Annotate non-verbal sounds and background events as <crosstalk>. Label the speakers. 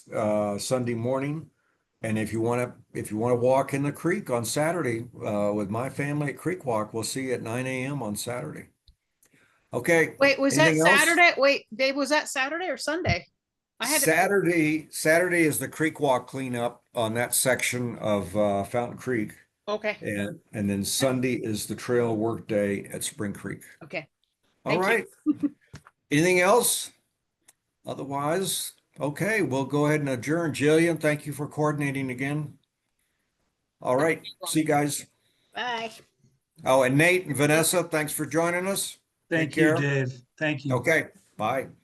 Speaker 1: uh, Sunday morning. And if you want to, if you want to walk in the creek on Saturday, uh, with my family at Creek Walk, we'll see you at nine AM on Saturday. Okay,
Speaker 2: Wait, was that
Speaker 1: Anything else?
Speaker 2: Saturday? Wait, Dave, was that Saturday or Sunday? I had, to-
Speaker 1: Saturday, Saturday is the Creek Walk cleanup on that section of, uh, Fountain Creek.
Speaker 2: okay,
Speaker 1: And, and then Sunday is the trail work day at Spring Creek.
Speaker 2: okay.
Speaker 1: All
Speaker 2: Thank you.
Speaker 1: right.
Speaker 2: <laughs>
Speaker 1: Anything else? Otherwise, okay, we'll go ahead and adjourn. Jillian, thank you for coordinating again. All right, see you guys.
Speaker 2: Bye.
Speaker 1: Oh, and Nate and Vanessa, thanks for joining us.
Speaker 3: Thank
Speaker 1: care.
Speaker 3: you, Dave. Thank you.
Speaker 1: Okay, bye.